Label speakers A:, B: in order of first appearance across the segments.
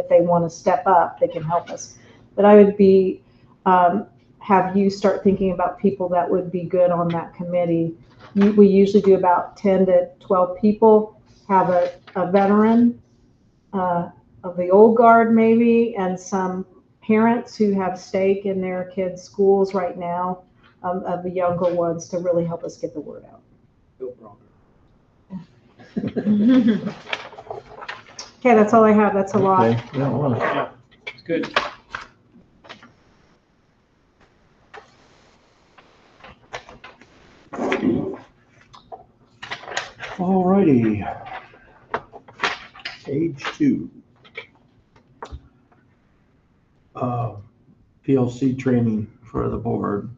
A: if they want to step up, they can help us. But I would be, um, have you start thinking about people that would be good on that committee. You- We usually do about ten to twelve people, have a, a veteran, uh, of the old guard maybe, and some parents who have stake in their kids' schools right now, um, of the younger ones to really help us get the word out.
B: Bill Bronner.
A: Okay, that's all I have. That's a lot.
C: Okay, yeah, well,
B: It's good.
C: All righty. Page two. Uh, PLC training for the board.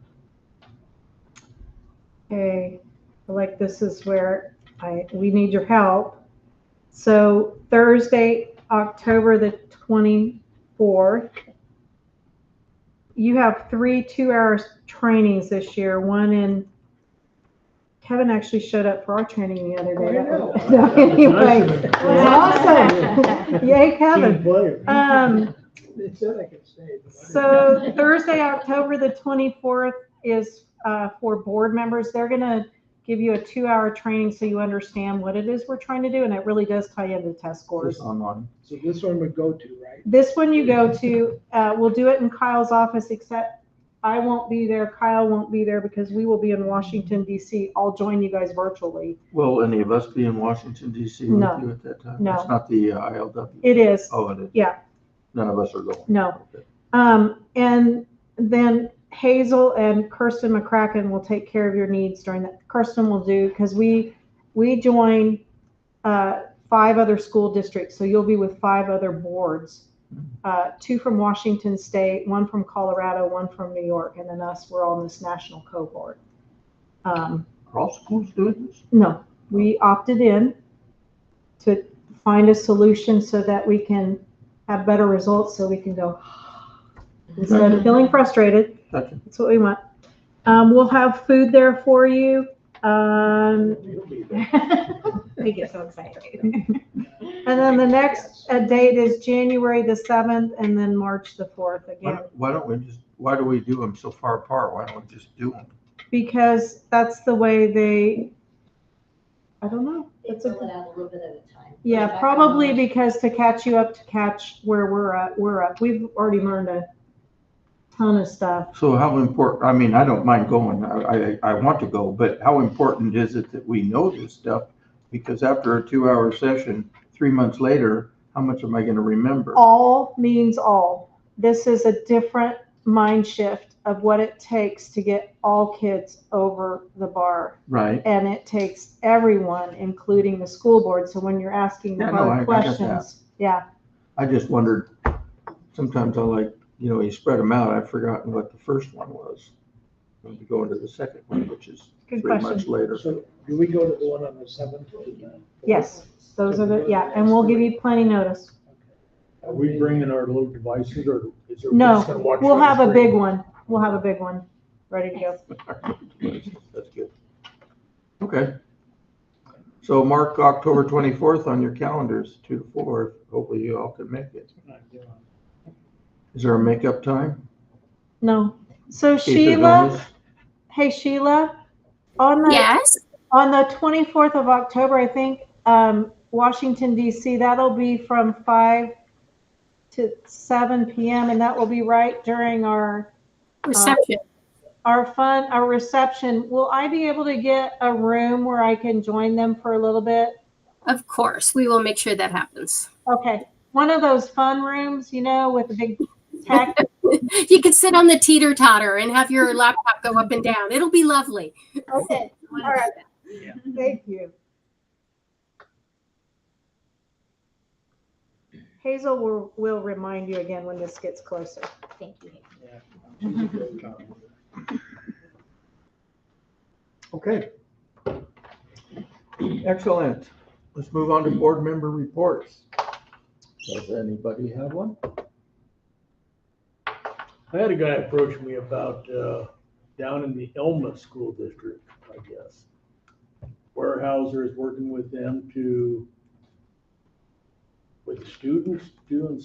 A: Okay, like this is where I, we need your help. So Thursday, October the 24th, you have three two-hour trainings this year, one in, Kevin actually showed up for our training the other day.
B: I know.
A: That was- Anyway, it was awesome. Yay, Kevin.
D: Team player.
A: Um,
B: It said I could stay. but I didn't.
A: So Thursday, October the 24th is uh, for board members. They're going to give you a two-hour training so you understand what it is we're trying to do, and it really does tie into test
C: Just
A: scores.
C: online.
B: So this one would go to, right?
A: This one you go to, uh, we'll do it in Kyle's office, except I won't be there, Kyle won't be there, because we will be in Washington DC. I'll join you guys virtually.
C: Will any of us be in Washington DC with
A: No.
C: you at that time?
A: No.
C: It's not the uh, ILW.
A: It is,
C: Oh, it is.
A: Yeah.
C: None of us are going.
A: no.
C: Okay.
A: Um, and then Hazel and Kirsten McCracken will take care of your needs during that. Kirsten will do, because we, we join, uh, five other school districts, so you'll be with five other boards. Uh, two from Washington State, one from Colorado, one from New York, and then us, we're on this national cohort. Um,
C: Are all schools doing this?
A: no, we opted in to find a solution so that we can have better results, so we can go instead of feeling frustrated.
C: Gotcha.
A: That's what we want. Um, we'll have food there for you. Um,
B: You'll be there.
A: they get so excited. And then the next uh, date is January the seventh and then March the fourth
C: Why
A: again,
C: don't- Why don't we just, why do we do them so far apart? Why don't we just do them?
A: because that's the way they, I don't know.
E: They
A: That's a-
E: fill it out a little bit at a time.
A: Yeah, probably because to catch you up, to catch where we're at, we're up. We've already learned a ton of stuff.
C: So how important, I mean, I don't mind going, I, I, I want to go, but how important is it that we know this stuff? Because after a two-hour session, three months later, how much am I gonna remember?
A: all means all. This is a different mind shift of what it takes to get all kids over the bar.
C: Right?
A: And it takes everyone, including the school board. So when you're asking the
C: Yeah, no, I- I
A: hard
C: get
A: questions, yeah,
C: I just wondered, sometimes I like, you know, you spread them out, I've forgotten what the first one was. When we go into the second one, which is
A: good
C: three months
A: question.
C: later.
B: So do we go to the one on the seventh?
A: Yes, those are the, yeah, and we'll give you plenty notice.
D: Are we bringing our little devices or is there?
A: No,
D: just gonna watch
A: We'll
D: on
A: have a
D: screen?
A: big one. We'll have a big one ready to go.
C: That's good. Okay. So mark October twenty-fourth on your calendars, two to four, hopefully you all can make it. Is there a makeup time?
A: No. So
C: In case they're
A: Sheila,
C: bonus?
A: hey Sheila, on the
F: Yes.
A: On the 24th of October, I think, um, Washington DC, that'll be from 5 to 7 PM and that will be right during our,
F: Reception.
A: our fun, our reception. Will I be able to get a room where I can join them for a little bit?
F: of course. We will make sure that happens.
A: Okay, one of those fun rooms, you know, with the big tech.
F: You can sit on the teeter totter and have your laptop go up and down. It'll be lovely.
A: Okay, all right, thank you. Hazel will, will remind you again when this gets closer.
E: Thank you.
C: Okay. Excellent. Let's move on to board member reports. Does anybody have one?
D: I had a guy approach me about, uh, down in the Elma School District, I guess. Weyerhaeuser is working with them to, with students, doing